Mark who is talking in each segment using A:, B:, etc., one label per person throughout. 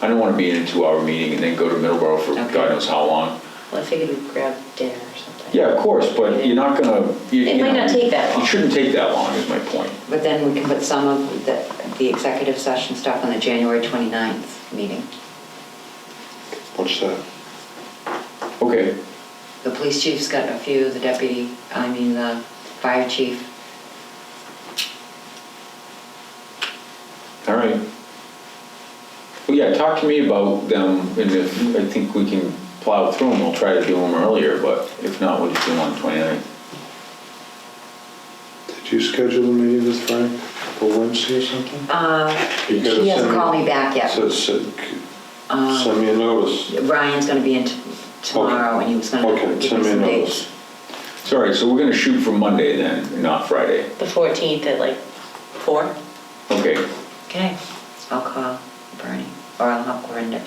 A: I don't want to be in a two-hour meeting and then go to Middleborough for
B: Okay.
A: God knows how long.
B: Well, I figured we'd grab dinner or something.
A: Yeah, of course, but you're not gonna. you-
B: It
A: you
B: might
A: know,
B: not take that long.
A: It shouldn't take that long, is my point.
C: But then we can put some of the, the executive session stuff on the January 29th meeting.
D: What's that?
A: Okay,
C: The police chief's got a few, the deputy, I mean, the fire chief.
A: all right. Well, yeah, talk to me about them, and if I think we can plow through them, we'll try to do them earlier, but if not, we'll just do them on the 29th.
D: Did you schedule a meeting with Frank for Wednesday or something?
C: Uh,
D: You gotta
C: He hasn't
D: send
C: called me back yet.
D: So, so- c-
C: Uh,
D: send me a notice.
C: Ryan's gonna be in t- tomorrow and he was gonna
D: Okay,
C: give me
D: send me a
C: some
D: notice.
C: dates.
A: So, all right, so we're gonna shoot for Monday then, not Friday.
B: The 14th at like 4?
A: Okay,
C: Okay, I'll call Bernie or I'll help Corinda.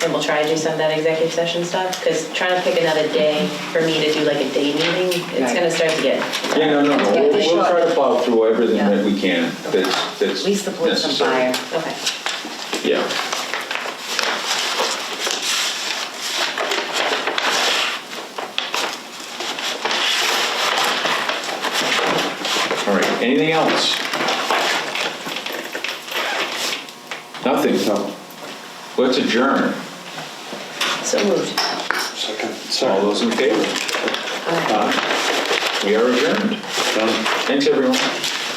B: And we'll try to do some of that executive session stuff, because trying to pick another day for me to do like a day meeting, it's
C: Right.
B: gonna start to get,
A: yeah, no, no, no,
C: Yeah,
A: we'll
C: they
A: we'll try
C: should.
A: to plow through everything
C: Yeah.
A: that we can that's, that's
C: At least the police and
A: necessary.
C: fire.
B: okay.
A: Yeah. All right, anything else? Nothing,
D: No,
A: let's adjourn.
B: So moved.
D: second,
A: All
D: sorry.
A: those in favor? We are adjourned.
D: Done.
A: Thanks, everyone.